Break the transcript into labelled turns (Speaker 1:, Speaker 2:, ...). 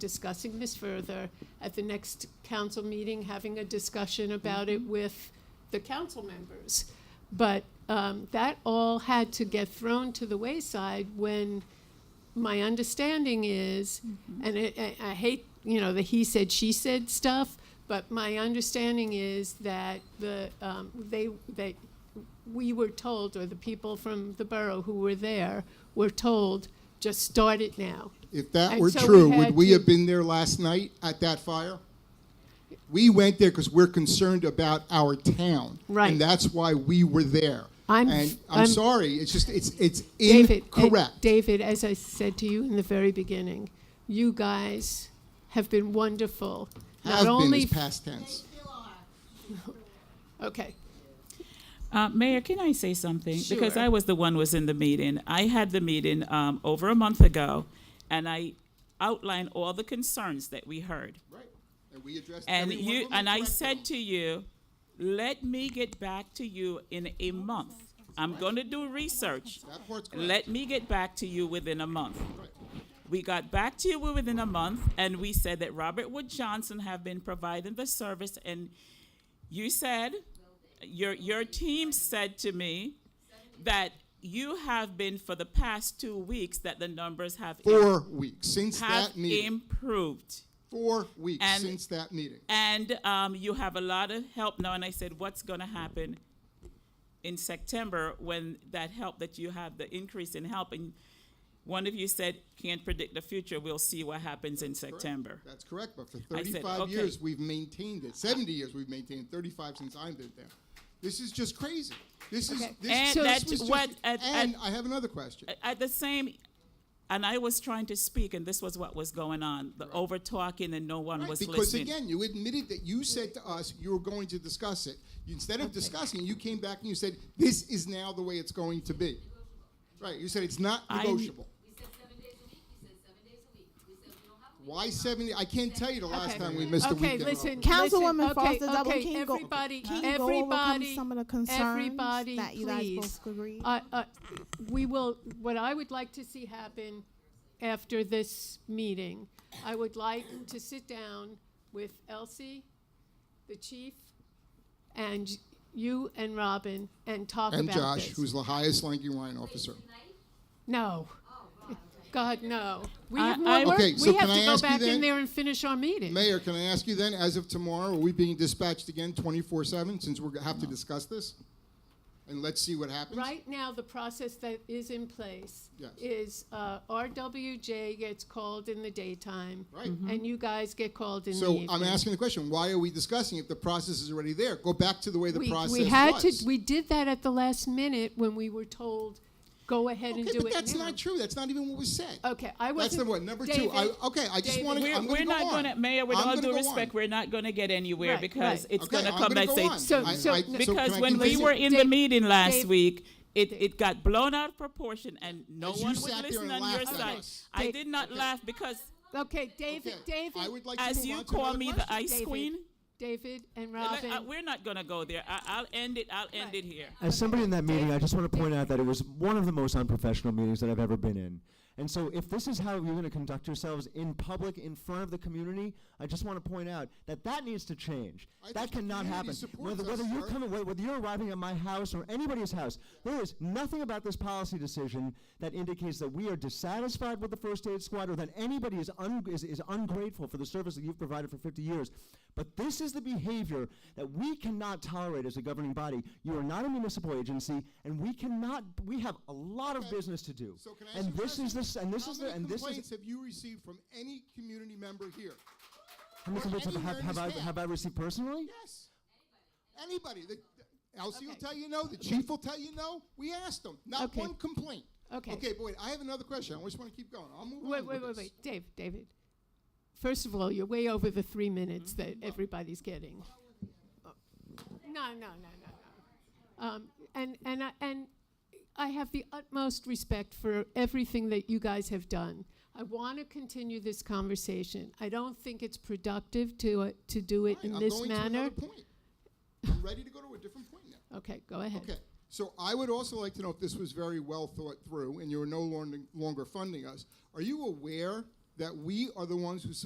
Speaker 1: discussing this further, at the next council meeting, having a discussion about it with the council members. But um, that all had to get thrown to the wayside when my understanding is, and I, I- I hate, you know, the he said, she said stuff, but my understanding is that the, um, they, they, we were told, or the people from the borough who were there were told, just start it now.
Speaker 2: If that
Speaker 1: And
Speaker 2: were
Speaker 1: so we
Speaker 2: true, would
Speaker 1: had
Speaker 2: we
Speaker 1: to-
Speaker 2: have been there last night at that fire? We went there because we're concerned about our town.
Speaker 1: Right.
Speaker 2: And that's why we were there.
Speaker 1: I'm-
Speaker 2: And
Speaker 1: I'm-
Speaker 2: I'm sorry, it's just, it's, it's
Speaker 1: David, eh,
Speaker 2: incorrect.
Speaker 1: David, as I said to you in the very beginning, you guys have been wonderful. Not
Speaker 2: Have been
Speaker 1: only
Speaker 2: is past tense.
Speaker 1: Okay,
Speaker 3: Uh, Mayor, can I say something? Because
Speaker 1: Sure.
Speaker 3: I was the one was in the meeting. I had the meeting um, over a month ago, and I outlined all the concerns that we heard.
Speaker 2: Right. And we addressed
Speaker 3: And
Speaker 2: every one
Speaker 3: you
Speaker 2: of them
Speaker 3: and I
Speaker 2: correctly.
Speaker 3: said to you, let me get back to you in a month. I'm going to do research.
Speaker 2: That part's correct.
Speaker 3: Let me get back to you within a month. We got back to you within a month, and we said that Robert Wood Johnson have been providing the service, and you said, your, your team said to me that you have been for the past two weeks that the numbers have,
Speaker 2: Four weeks since
Speaker 3: have
Speaker 2: that meeting.
Speaker 3: improved.
Speaker 2: Four weeks
Speaker 3: And-
Speaker 2: since that meeting.
Speaker 3: And um, you have a lot of help now. And I said, what's going to happen in September when that help that you have, the increase in help? And one of you said, can't predict the future. We'll see what happens in September.
Speaker 2: That's correct, but for
Speaker 3: I said,
Speaker 2: 35
Speaker 3: okay.
Speaker 2: years, we've maintained it. 70 years, we've maintained it. 35 since I've been there. This is just crazy. This is,
Speaker 1: Okay.
Speaker 2: this,
Speaker 3: And
Speaker 2: this
Speaker 3: that's
Speaker 2: was just-
Speaker 3: what- at- Uh,
Speaker 2: and
Speaker 3: at-
Speaker 2: I have another question.
Speaker 3: At the same, and I was trying to speak, and this was what was going on the over talking, and no one
Speaker 2: Right,
Speaker 3: was
Speaker 2: because
Speaker 3: listening.
Speaker 2: again, you admitted that you said to us you were going to discuss it. You- Instead of discussing, you came back and you said, "This is now the way it's going to be." Right? You said it's not
Speaker 3: I-
Speaker 2: negotiable.
Speaker 4: We said seven days a week, we said seven days a week, we said we don't have a week.
Speaker 2: Why seventy? I can't tell you the last
Speaker 1: Okay.
Speaker 2: time we missed a
Speaker 1: okay,
Speaker 2: weekend.
Speaker 1: listen.
Speaker 5: Councilwoman
Speaker 1: listen, okay,
Speaker 5: Foster Dublin,
Speaker 1: okay,
Speaker 5: can you go-
Speaker 1: everybody,
Speaker 5: can you go over
Speaker 1: everybody,
Speaker 5: some of the concerns
Speaker 1: everybody,
Speaker 5: that you guys
Speaker 1: please.
Speaker 5: both agreed?
Speaker 1: Uh, uh, we will. What I would like to see happen after this meeting, I would like to sit down with Elsie, the chief, and you and Robin, and talk
Speaker 2: And
Speaker 1: about
Speaker 2: Josh,
Speaker 1: this.
Speaker 2: who's the highest ranking line officer.
Speaker 1: no. God no! We
Speaker 3: I-
Speaker 1: have more
Speaker 3: I-
Speaker 1: work.
Speaker 2: Okay, so
Speaker 1: we have
Speaker 2: can
Speaker 1: to
Speaker 2: I
Speaker 1: go
Speaker 2: ask you
Speaker 1: back in
Speaker 2: then-
Speaker 1: there and finish our meeting.
Speaker 2: Mayor, can I ask you then, as of tomorrow, are we being dispatched again twenty-four seven since we're gonna have to discuss this? And let's see what happens.
Speaker 1: Right now, the process that is in place
Speaker 2: Yes.
Speaker 1: is uh, RWJ gets called in the daytime.
Speaker 2: Right. Mhm.
Speaker 1: And you guys get called in the
Speaker 2: So
Speaker 1: evening.
Speaker 2: I'm asking the question: Why are we discussing if the process is already there? Go back to the way the
Speaker 1: We-
Speaker 2: process
Speaker 1: We had
Speaker 2: was.
Speaker 1: to, we did that at the last minute when we were told, go ahead and
Speaker 2: Okay,
Speaker 1: do it
Speaker 2: but that's
Speaker 1: now."
Speaker 2: not true. That's not even what was said.
Speaker 1: Okay, I
Speaker 2: That's
Speaker 1: wasn't.
Speaker 2: number one. Number two, I,
Speaker 1: David,
Speaker 2: okay, I just
Speaker 1: David.
Speaker 2: want to.
Speaker 3: We're,
Speaker 2: I'm gonna
Speaker 3: we're
Speaker 2: go
Speaker 3: not
Speaker 2: on.
Speaker 3: going to, Mayor, with
Speaker 2: I'm
Speaker 3: all
Speaker 2: gonna
Speaker 3: due
Speaker 2: go
Speaker 3: respect,
Speaker 2: on.
Speaker 3: we're not going to get anywhere
Speaker 1: Right,
Speaker 3: because
Speaker 1: right.
Speaker 3: it's
Speaker 2: Okay,
Speaker 3: going to
Speaker 2: I'm
Speaker 3: come
Speaker 2: gonna
Speaker 3: back
Speaker 2: go
Speaker 3: say,
Speaker 2: on.
Speaker 1: So-
Speaker 2: I-
Speaker 1: so-
Speaker 2: I-
Speaker 1: no-
Speaker 2: can
Speaker 3: Because
Speaker 2: I
Speaker 3: when we
Speaker 2: continue?
Speaker 3: were in the
Speaker 1: Dave-
Speaker 3: meeting last
Speaker 1: Dave-
Speaker 3: week, it, it got blown out of proportion and no
Speaker 2: As you
Speaker 3: one
Speaker 2: sat
Speaker 3: would
Speaker 2: there
Speaker 3: listen
Speaker 2: and
Speaker 3: on your
Speaker 2: laughed at
Speaker 3: side.
Speaker 2: us.
Speaker 3: I
Speaker 1: Dave-
Speaker 3: did not laugh because
Speaker 1: Okay, David,
Speaker 2: Okay,
Speaker 1: David.
Speaker 2: I would like to
Speaker 3: as
Speaker 2: move
Speaker 3: you
Speaker 2: on to
Speaker 3: call
Speaker 2: another
Speaker 3: me the
Speaker 2: question.
Speaker 3: ice
Speaker 1: David,
Speaker 3: queen,
Speaker 1: David and
Speaker 3: uh,
Speaker 1: Robin.
Speaker 3: uh, we're not gonna go there. I, I'll end it, I'll end it here.
Speaker 6: As somebody in that meeting, I just want to point out that it was one of the most unprofessional meetings that I've ever been in. And so, if this is how you're going to conduct yourselves in public, in front of the community, I just want to point out that that needs to change.
Speaker 2: I think
Speaker 6: that
Speaker 2: the
Speaker 6: cannot
Speaker 2: community
Speaker 6: happen.
Speaker 2: supports
Speaker 6: Whether,
Speaker 2: us,
Speaker 6: whether you're
Speaker 2: sir.
Speaker 6: coming, whether, whether you're arriving at my house or anybody's house, there is nothing about this policy decision that indicates that we are dissatisfied with the first aid squad or that anybody is, un- is, is ungrateful for the service that you've provided for 50 years. But this is the behavior that we cannot tolerate as a governing body. You are not a municipal agency, and we cannot. We have a lot of business to do.
Speaker 2: So can I ask
Speaker 6: and
Speaker 2: you a
Speaker 6: this is
Speaker 2: question?
Speaker 6: this, and this
Speaker 2: How
Speaker 6: is
Speaker 2: many
Speaker 6: the, and this
Speaker 2: complaints
Speaker 6: is.
Speaker 2: have you received from any community member here?
Speaker 6: How many
Speaker 2: or
Speaker 6: complaints have,
Speaker 2: anywhere
Speaker 6: have,
Speaker 2: in
Speaker 6: have
Speaker 2: this
Speaker 6: I
Speaker 2: town?
Speaker 6: have I received personally?
Speaker 2: Yes. Anybody. The, the- Elsie will
Speaker 1: Okay.
Speaker 2: tell you no. The chief will tell you no. We asked them. Not
Speaker 1: Okay.
Speaker 2: one complaint.
Speaker 1: Okay.
Speaker 2: Okay, but wait. I have another question. I just want to keep going. I'll move
Speaker 1: Wait,
Speaker 2: on.
Speaker 1: wait,
Speaker 2: with
Speaker 1: wait,
Speaker 2: this.
Speaker 1: wait, Dave, David. First of all, you're way over the three minutes that everybody's getting. No, no, no, no, no. Um, and and I, and I have the utmost respect for everything that you guys have done. I want to continue this conversation. I don't think it's productive to uh, to do it
Speaker 2: All right,
Speaker 1: in
Speaker 2: I'm
Speaker 1: this
Speaker 2: going To
Speaker 1: manner.
Speaker 2: another point. I'm ready to go to a different point now.
Speaker 1: Okay, go ahead.
Speaker 2: Okay. So I would also like to know if this was very well thought through and you are no lon- longer funding us. Are you aware that we are the ones who